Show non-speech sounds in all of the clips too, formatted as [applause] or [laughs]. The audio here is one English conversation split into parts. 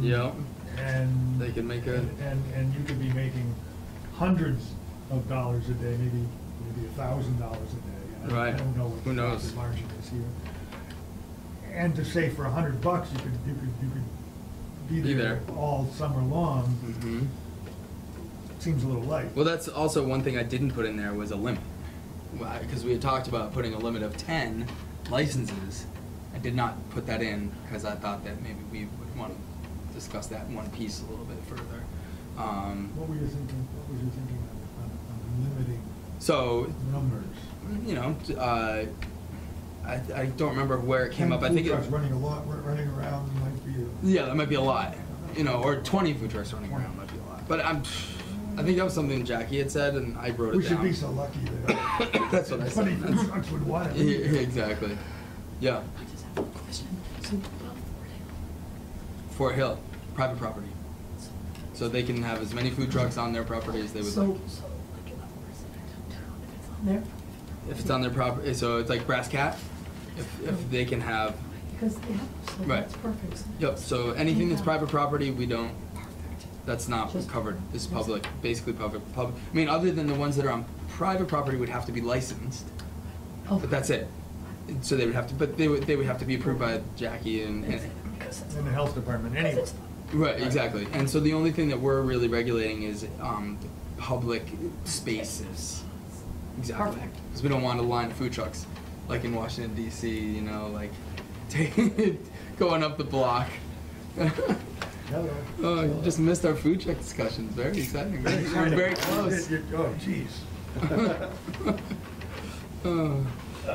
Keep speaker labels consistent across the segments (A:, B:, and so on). A: Yeah.
B: and.
A: They can make a-
B: And, and- and you could be making hundreds of dollars a day, maybe, maybe a thousand dollars a day. I-
A: Right.
B: I don't know what
A: Who
B: the
A: knows?
B: profit margin is here. And to say for a hundred bucks, you could, you could, you could
A: Be
B: be there
A: there.
B: all summer long,
A: Mhm.
B: seems a little light.
A: Well, that's also one thing I didn't put in there was a limit. Because we had talked about putting a limit of 10 licenses. I did not put that in because I thought that maybe we would want to discuss that one piece a little bit further. Um,
B: What were you thinking, what was you thinking on, on- on limiting
A: so,
B: numbers?
A: you know, t- uh, I, I don't remember where it came up. I think
B: Food trucks
A: it,
B: running a lot, run- running around might be a.
A: Yeah, that might be a lot. You know, or 20 food trucks running around might be a lot. But I'm, I think that was something Jackie had said, and I wrote it
B: We should
A: down.
B: be so lucky
A: [laughs]
B: that.
A: That's what I said.
B: Funny, food trucks would want it.
A: Yeah, exactly. Yeah,
C: I just have a question. So above
A: Fort
C: Fort Hill,
A: Hill, private property. So they can have as many food trucks on their property as they would
D: So-
A: like.
C: so like a level resident downtown, if it's on there.
A: If it's on their property, so it's like Brass Cat, if, if they can have,
D: Because, yeah, so
A: Right.
D: that's perfect.
A: yep, so anything that's private property, we don't,
C: Perfect.
A: that's not
D: Just-
A: covered, it's
D: yes.
A: public, basically public, public. I mean, other than the ones that are on private property would have to be licensed,
D: Oh.
A: but that's it. And So they would have to, but they would, they would have to be approved by Jackie and, and,
C: Because it's.
B: In the health department
C: because
B: anyway.
C: it's-
A: right, exactly. And so the only thing that we're really regulating is, um, public spaces. Exactly.
D: Perfect.
A: Because we don't want to line food trucks, like in Washington D.C. You know, like [laughs] going up the block.
B: Hello.
A: [laughs] oh, you just missed our food truck discussions. Very exciting. Very,
B: [laughs]
A: we're very close.
B: Oh,
A: [laughs]
B: jeez.
A: Uh,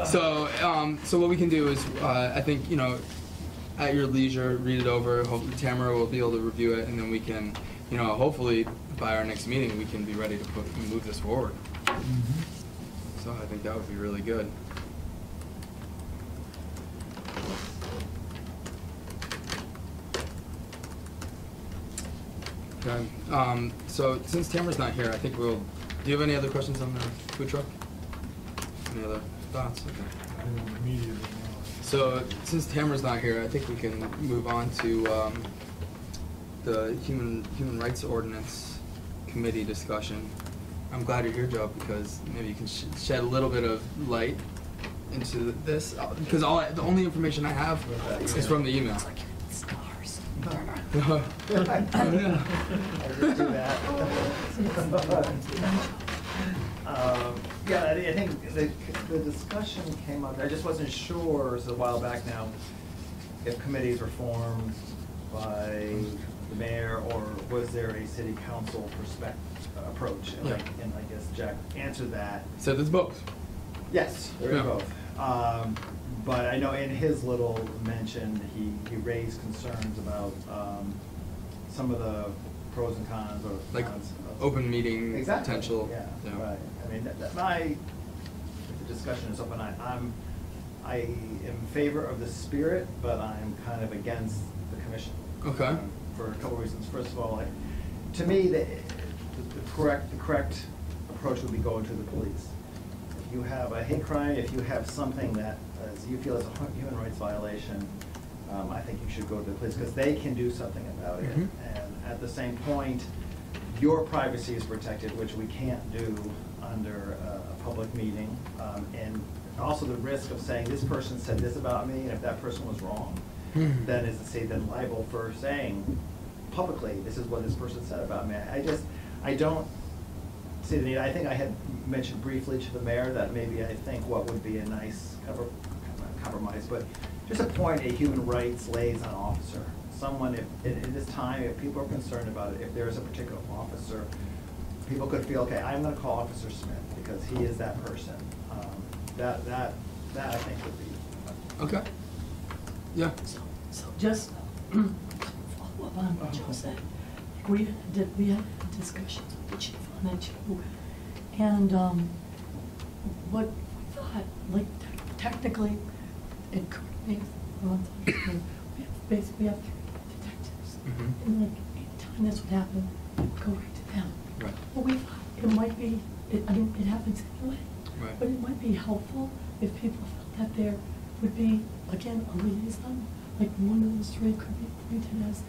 A: so, um, so what we can do is, uh, I think you know, at your leisure, read it over. Hopefully, Tamara will be able to review it, and then we can, you know, hopefully by our next meeting, we can be ready to put, move this forward. So I think that would be really good. Okay, um, so since Tamara's not here, I think we'll, do you have any other questions on the food truck? Any other thoughts? Okay.
B: I don't immediately know.
A: So since Tamara's not here, I think we can move on to, um, the human, human rights ordinance committee discussion. I'm glad you're here, Joe, because maybe you can sh- shed a little bit of light into this, uh, because all, I- the only information I have is from the email.
C: It's like
A: [laughs]
C: stars. [laughs]
E: I do that. Um, Yeah, I I think the, the discussion came up, I just wasn't sure, it was a while back now, if committees were formed by the mayor, or was there a city council perspective, approach? And I-
A: Yeah.
E: And I guess Jack answered that.
A: So there's both.
E: Yes, there
A: Yeah.
E: are both. Um, But I know in his little mention, he, he raised concerns about um, some of the pros and cons or
A: Like
E: cons of-
A: open meeting
E: Exactly,
A: potential,
E: Yeah,
A: yeah.
E: right. I mean, that, that, my, if the discussion is open, I, I'm, I am in favor of the spirit, but I'm kind of against the commission.
A: Okay.
E: Um, For a couple reasons. First of all, like, to me, the, the correct, the correct approach would be going to the police if you have a hate crime, if you have something that uh, you feel is a hu- human rights violation, um, I think you should go to the police, because they can do something about it.
A: Mhm.
E: And at the same point, your privacy is protected, which we can't do under uh, a public meeting. Um, And also the risk of saying, this person said this about me, and if that person was wrong,
A: Hmm.
E: then is the state then liable for saying publicly, this is what this person said about me? I just, I don't, See, the need- I think I had mentioned briefly to the mayor that maybe I think what would be a nice cover- not compromise, but just appoint a human rights liaison officer. Someone, if, at at this time, if people are concerned about it, if there is a particular officer, people could feel, okay, I'm gonna call Officer Smith because he is that person. Um, That, that, that I think would be,
A: Okay. Yeah.
C: So, so just [clears throat] follow up on what Joe said. We did, we had discussions with the chief on that too. And, um, what we thought, like te- technically, it could be, well, it's not true. we have, basically, we have three detectives.
A: Mhm.
C: And like, anytime this would happen, it'd go right to them.
A: Right.
C: Well, we thought it might be, it, I mean, it happens anyway.
A: Right.
C: But it might be helpful if people felt that there would be, again, a liaison, like one of those three could be appointed as